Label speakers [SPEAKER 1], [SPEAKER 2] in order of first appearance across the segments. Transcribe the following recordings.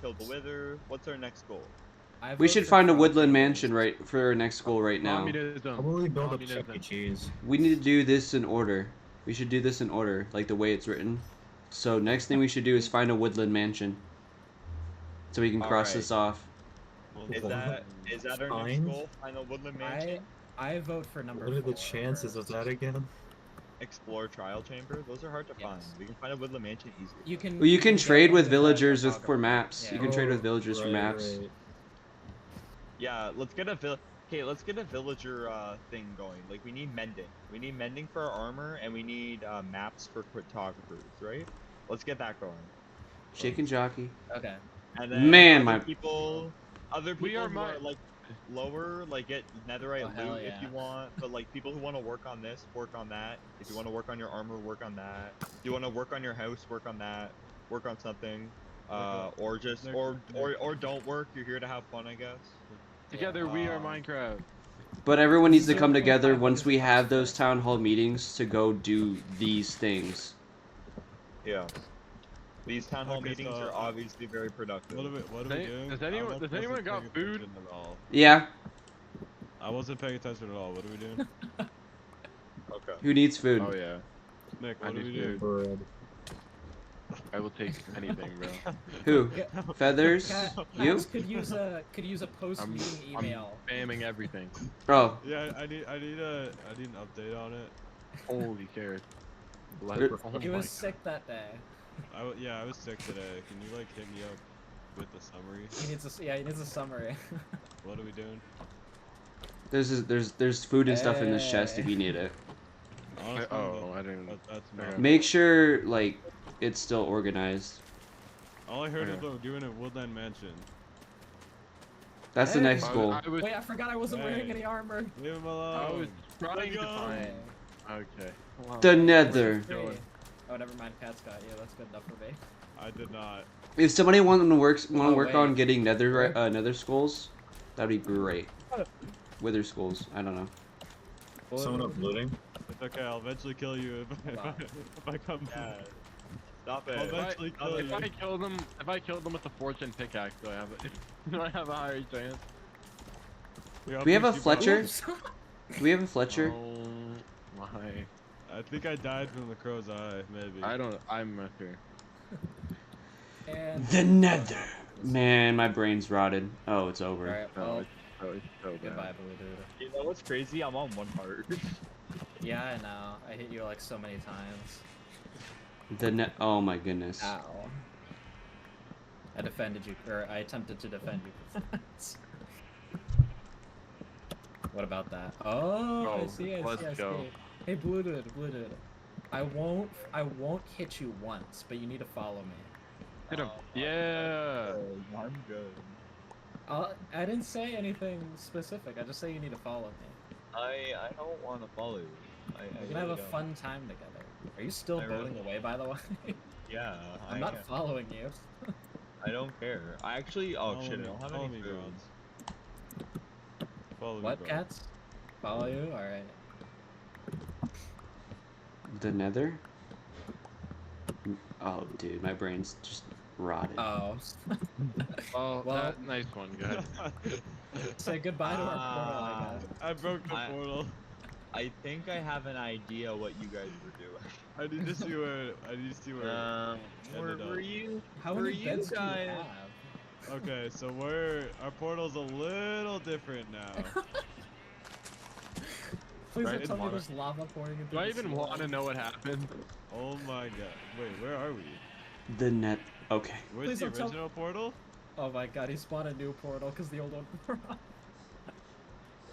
[SPEAKER 1] kill the wither. What's our next goal?
[SPEAKER 2] I
[SPEAKER 3] We
[SPEAKER 2] vote
[SPEAKER 3] should
[SPEAKER 2] for
[SPEAKER 3] find a
[SPEAKER 2] Trump.
[SPEAKER 3] woodland mansion right for our next goal right now.
[SPEAKER 4] How
[SPEAKER 5] Communism.
[SPEAKER 4] will we build up
[SPEAKER 5] Communism.
[SPEAKER 4] Chuck E. Cheese?
[SPEAKER 3] We need to do this in order. We should do this in order, like the way it's written. So next thing we should do is find a woodland mansion. So we can
[SPEAKER 1] All
[SPEAKER 3] cross
[SPEAKER 1] right.
[SPEAKER 3] this off.
[SPEAKER 1] Is that is that our next
[SPEAKER 4] Fine.
[SPEAKER 1] goal? Final Woodland
[SPEAKER 2] I
[SPEAKER 1] Mansion.
[SPEAKER 2] I vote for number.
[SPEAKER 4] What are the
[SPEAKER 2] four.
[SPEAKER 4] chances of that again?
[SPEAKER 1] Explore Trial Chamber. Those are hard to find.
[SPEAKER 2] Yes.
[SPEAKER 1] We can find a Woodland Mansion easily.
[SPEAKER 2] You can.
[SPEAKER 3] Well, you can
[SPEAKER 2] get
[SPEAKER 3] trade
[SPEAKER 2] one
[SPEAKER 3] with
[SPEAKER 2] that has
[SPEAKER 3] villagers
[SPEAKER 2] a
[SPEAKER 3] with for
[SPEAKER 2] dog
[SPEAKER 3] maps. You
[SPEAKER 2] Yeah.
[SPEAKER 3] can trade with
[SPEAKER 4] Oh,
[SPEAKER 3] villagers for
[SPEAKER 4] right,
[SPEAKER 3] maps.
[SPEAKER 4] right.
[SPEAKER 1] Yeah, let's get a vill. Okay, let's get a villager uh, thing going. Like we need mending. We need mending for our armor, and we need uh, maps for cartographers, right? Let's get that going.
[SPEAKER 3] Shake and jockey.
[SPEAKER 2] on it. Okay.
[SPEAKER 1] And then
[SPEAKER 3] Man,
[SPEAKER 1] other
[SPEAKER 3] my-
[SPEAKER 1] people, other people
[SPEAKER 5] We are
[SPEAKER 1] who
[SPEAKER 5] my-
[SPEAKER 1] are like lower, like get
[SPEAKER 2] Oh,
[SPEAKER 1] netherite
[SPEAKER 2] hell
[SPEAKER 1] loot if
[SPEAKER 2] yeah.
[SPEAKER 1] you want. But like people who want to work on this, work on that. If you want to work on your armor, work on that. If you want to work on your house, work on that. Work on something, uh, or just
[SPEAKER 5] They're
[SPEAKER 1] or
[SPEAKER 5] good.
[SPEAKER 1] or or don't work. You're here to have fun, I guess.
[SPEAKER 5] Together we are
[SPEAKER 1] Um,
[SPEAKER 5] Minecraft.
[SPEAKER 3] But everyone needs to
[SPEAKER 2] So
[SPEAKER 3] come
[SPEAKER 2] we can
[SPEAKER 3] together
[SPEAKER 2] find
[SPEAKER 3] once
[SPEAKER 2] these
[SPEAKER 3] we have
[SPEAKER 2] places.
[SPEAKER 3] those town hall meetings to go do these things.
[SPEAKER 1] Yeah. These town hall
[SPEAKER 6] Okay,
[SPEAKER 1] meetings
[SPEAKER 6] so,
[SPEAKER 1] are
[SPEAKER 6] uh,
[SPEAKER 1] obviously very productive.
[SPEAKER 6] What are we, what are
[SPEAKER 5] Does
[SPEAKER 6] we
[SPEAKER 5] any-
[SPEAKER 6] doing?
[SPEAKER 5] does
[SPEAKER 6] I
[SPEAKER 5] anyone-
[SPEAKER 6] wasn't
[SPEAKER 5] does anyone
[SPEAKER 6] paying
[SPEAKER 5] got food?
[SPEAKER 6] attention at all.
[SPEAKER 3] Yeah.
[SPEAKER 6] I wasn't paying attention at all. What are we doing?
[SPEAKER 1] Okay.
[SPEAKER 3] Who needs food?
[SPEAKER 7] Oh yeah,
[SPEAKER 6] Nick,
[SPEAKER 7] I
[SPEAKER 6] what are
[SPEAKER 7] need
[SPEAKER 6] we
[SPEAKER 7] food.
[SPEAKER 6] doing?
[SPEAKER 4] Bread.
[SPEAKER 7] I will take anything, bro.
[SPEAKER 3] Who? Feathers?
[SPEAKER 2] Ca-
[SPEAKER 3] You?
[SPEAKER 2] Maps could use a could use a post meeting
[SPEAKER 7] I'm
[SPEAKER 2] email.
[SPEAKER 7] spamming everything.
[SPEAKER 3] Oh,
[SPEAKER 6] Yeah, I I need, I need a, I need an update on it.
[SPEAKER 7] Holy carrot. Bless.
[SPEAKER 3] There-
[SPEAKER 7] Oh
[SPEAKER 2] He
[SPEAKER 7] my
[SPEAKER 2] was sick that day.
[SPEAKER 6] I, w- yeah, I was sick today. Can you like hit me up with the summary?
[SPEAKER 2] He needs a s- yeah. He needs a summary.
[SPEAKER 6] What are we doing?
[SPEAKER 3] there's there's there's food and stuff in this chest if
[SPEAKER 2] Hey.
[SPEAKER 3] you need it.
[SPEAKER 6] Honestly,
[SPEAKER 7] Oh, I
[SPEAKER 6] that-
[SPEAKER 7] didn't.
[SPEAKER 6] that- that's
[SPEAKER 7] Okay.
[SPEAKER 2] Eh.
[SPEAKER 6] not.
[SPEAKER 3] Make sure like it's still organized.
[SPEAKER 6] All I heard is
[SPEAKER 7] Okay.
[SPEAKER 6] that we're doing a Woodland Mansion.
[SPEAKER 3] That's the
[SPEAKER 2] Hey.
[SPEAKER 3] next
[SPEAKER 7] I
[SPEAKER 3] goal.
[SPEAKER 7] was, I was,
[SPEAKER 2] Wait, I forgot I wasn't wearing any armor.
[SPEAKER 6] Leave him
[SPEAKER 7] I was
[SPEAKER 6] alone.
[SPEAKER 7] trying to
[SPEAKER 6] Let's go.
[SPEAKER 7] find.
[SPEAKER 2] Hey.
[SPEAKER 7] Okay.
[SPEAKER 3] The
[SPEAKER 2] Where's
[SPEAKER 3] nether.
[SPEAKER 2] the
[SPEAKER 7] Going.
[SPEAKER 2] three? Oh, never mind. Pat's got you. That's good enough for me.
[SPEAKER 6] I did not.
[SPEAKER 3] If somebody want to work want to
[SPEAKER 2] Oh,
[SPEAKER 3] work
[SPEAKER 2] wait. Eh.
[SPEAKER 3] on getting nether uh, nether skulls, that'd be great. Wither skulls. I don't know.
[SPEAKER 4] Someone uploading?
[SPEAKER 6] It's okay. I'll eventually kill you if, I- if, I,
[SPEAKER 2] Wow.
[SPEAKER 6] if I come
[SPEAKER 1] Yeah.
[SPEAKER 6] back.
[SPEAKER 1] Stop
[SPEAKER 6] I'll
[SPEAKER 1] it.
[SPEAKER 6] eventually
[SPEAKER 1] I'll
[SPEAKER 6] kill
[SPEAKER 7] If
[SPEAKER 6] you.
[SPEAKER 7] I kill them, if I kill them with the fortune pickaxe, do I have a, do I have a higher chance?
[SPEAKER 6] Here, I'll
[SPEAKER 3] Do we have a
[SPEAKER 6] pick you up.
[SPEAKER 3] Fletcher? Do we have a Fletcher?
[SPEAKER 7] Oh my!
[SPEAKER 6] I think I died from the crow's eye. Maybe.
[SPEAKER 7] I don't. I'm not sure.
[SPEAKER 2] And
[SPEAKER 3] The nether. Man, my brain's rotted. Oh, it's over.
[SPEAKER 2] all right.
[SPEAKER 7] No,
[SPEAKER 2] Well,
[SPEAKER 7] it's, oh, it's so bad.
[SPEAKER 2] goodbye, blue dude.
[SPEAKER 1] You know what's crazy? I'm on one heart.
[SPEAKER 2] Yeah, I know. I hit you like so many times.
[SPEAKER 3] The net. Oh my goodness.
[SPEAKER 2] Ow. I defended you, or I attempted to defend you. what about that? Oh, I
[SPEAKER 7] Oh,
[SPEAKER 2] see, I see,
[SPEAKER 7] let's
[SPEAKER 2] I see.
[SPEAKER 7] go.
[SPEAKER 2] Hey, Blue Dude, Blue Dude. I won't, I won't hit you once, but you need to follow me.
[SPEAKER 7] Hit him.
[SPEAKER 1] Oh, I'm
[SPEAKER 7] yeah.
[SPEAKER 1] good. I'm good.
[SPEAKER 2] I'll, I didn't say anything specific. I just say you need to follow me.
[SPEAKER 1] I I don't want to follow you. I, I
[SPEAKER 2] We're gonna have
[SPEAKER 1] really
[SPEAKER 2] a
[SPEAKER 1] don't.
[SPEAKER 2] fun time together. Are you still
[SPEAKER 1] I really-
[SPEAKER 2] voting away, by the way?
[SPEAKER 1] Yeah.
[SPEAKER 2] I'm
[SPEAKER 1] I
[SPEAKER 2] not
[SPEAKER 1] am.
[SPEAKER 2] following you.
[SPEAKER 1] I don't care. I actually. Oh
[SPEAKER 6] Follow
[SPEAKER 1] shit!
[SPEAKER 6] me,
[SPEAKER 1] I don't have
[SPEAKER 6] follow
[SPEAKER 1] any
[SPEAKER 6] me,
[SPEAKER 1] food.
[SPEAKER 6] Bronze. Follow
[SPEAKER 2] What,
[SPEAKER 6] me, bro.
[SPEAKER 2] cats? Follow you? All right.
[SPEAKER 3] The nether. Oh, dude, my brain's just rotted.
[SPEAKER 2] Oh,
[SPEAKER 7] Oh,
[SPEAKER 2] Well-
[SPEAKER 7] that, nice one. Go ahead.
[SPEAKER 2] say goodbye to our portal, I
[SPEAKER 1] Ah.
[SPEAKER 2] guess.
[SPEAKER 6] I broke the
[SPEAKER 1] I-
[SPEAKER 6] portal.
[SPEAKER 1] I think I have an idea what you guys were doing.
[SPEAKER 6] I need to see where. I need to see where.
[SPEAKER 7] Uh,
[SPEAKER 1] Um, where
[SPEAKER 6] Ended up.
[SPEAKER 1] were you?
[SPEAKER 2] How
[SPEAKER 1] Were
[SPEAKER 2] many
[SPEAKER 1] you
[SPEAKER 2] beds do you
[SPEAKER 1] guys-
[SPEAKER 2] have?
[SPEAKER 6] Okay, so we're our portal's a little different now.
[SPEAKER 2] Please
[SPEAKER 7] I
[SPEAKER 2] don't
[SPEAKER 7] didn't
[SPEAKER 2] tell me
[SPEAKER 7] wanna-
[SPEAKER 2] there's lava pouring into
[SPEAKER 7] Do I even want to know what happened?
[SPEAKER 6] oh my god! Wait, where are we?
[SPEAKER 3] The net. Okay.
[SPEAKER 6] Where's
[SPEAKER 2] Please
[SPEAKER 6] the
[SPEAKER 2] don't tell-
[SPEAKER 6] original portal?
[SPEAKER 2] Oh my god, he spawned a new portal because the old one broke.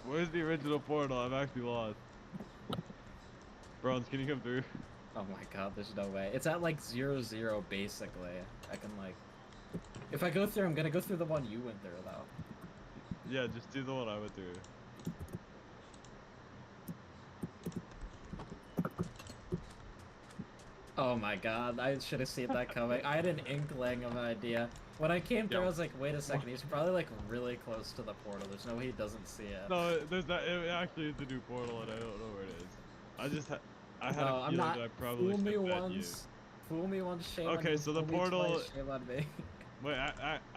[SPEAKER 6] Where's the original portal? I'm actually lost. Bronze, can you come through?
[SPEAKER 2] Oh my god, there's no way. It's at like zero zero basically. I can like. If I go through, I'm gonna go through the one you went through though.
[SPEAKER 6] Yeah, just do the one I went through.
[SPEAKER 2] Oh my god, I should have seen that coming. I had an inkling of an idea. When I came through, I was like, wait a second, he's probably like really close to the portal. There's no way he doesn't see it.
[SPEAKER 6] No, it- there's that. It actually is the new portal, and I don't know where it is. I just ha- I had
[SPEAKER 2] No,
[SPEAKER 6] a
[SPEAKER 2] Uh, I'm
[SPEAKER 6] feeling
[SPEAKER 2] not.
[SPEAKER 6] that I probably
[SPEAKER 2] fool
[SPEAKER 6] should
[SPEAKER 2] me
[SPEAKER 6] have bet you.
[SPEAKER 2] once. Fool me once, shame on
[SPEAKER 6] Okay,
[SPEAKER 2] you.
[SPEAKER 6] so the
[SPEAKER 2] Fool me twice,
[SPEAKER 6] portal-
[SPEAKER 2] Shame on me.
[SPEAKER 6] Wait, I, I